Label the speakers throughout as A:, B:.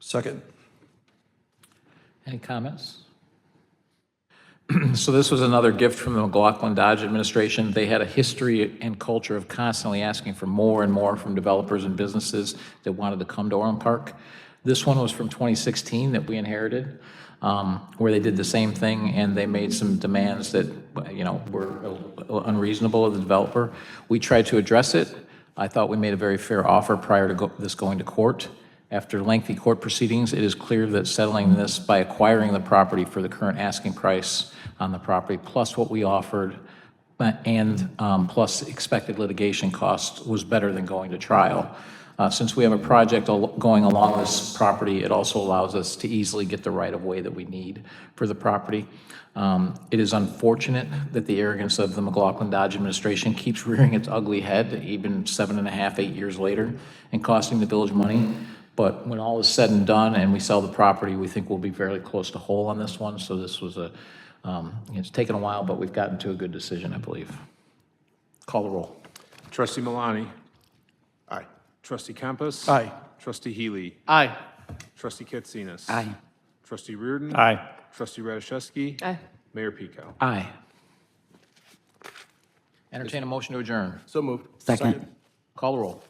A: Second.
B: Any comments?
C: So this was another gift from the McLaughlin Dodge administration. They had a history and culture of constantly asking for more and more from developers and businesses that wanted to come to Orland Park. This one was from 2016 that we inherited, um, where they did the same thing, and they made some demands that, you know, were unreasonable of the developer. We tried to address it. I thought we made a very fair offer prior to go- this going to court. After lengthy court proceedings, it is clear that settling this by acquiring the property for the current asking price on the property, plus what we offered, but- and um, plus expected litigation costs, was better than going to trial. Uh, Since we have a project al- going along this property, it also allows us to easily get the right-of-way that we need for the property. Um, It is unfortunate that the arrogance of the McLaughlin Dodge administration keeps rearing its ugly head, even seven and a half, eight years later, and costing the village money. But when all is said and done and we sell the property, we think we'll be fairly close to whole on this one. So this was a, um, it's taken a while, but we've gotten to a good decision, I believe. Call the roll.
D: Trustee Malani.
A: Aye.
D: Trustee Campus.
A: Aye.
D: Trustee Healy.
E: Aye.
D: Trustee Katsinas.
E: Aye.
D: Trustee Reardon.
E: Aye.
D: Trustee Radiszewski.
F: Aye.
D: Mayor Pico.
C: Aye. Entertain a motion to adjourn.
A: So moved.
E: Second.
C: Call the roll.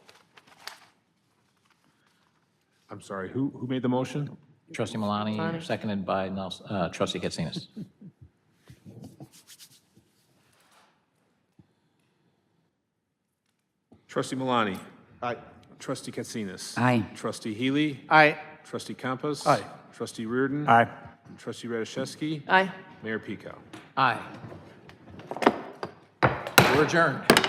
D: I'm sorry, who, who made the motion?
C: Trustee Malani, seconded by Nelson, uh, trustee Katsinas.
D: Trustee Malani.
A: Aye.
D: Trustee Katsinas.
E: Aye.
D: Trustee Healy.
E: Aye.
D: Trustee Campus.
A: Aye.
D: Trustee Reardon.
E: Aye.
D: Trustee Radiszewski.
F: Aye.
D: Mayor Pico.
C: Aye. We're adjourned.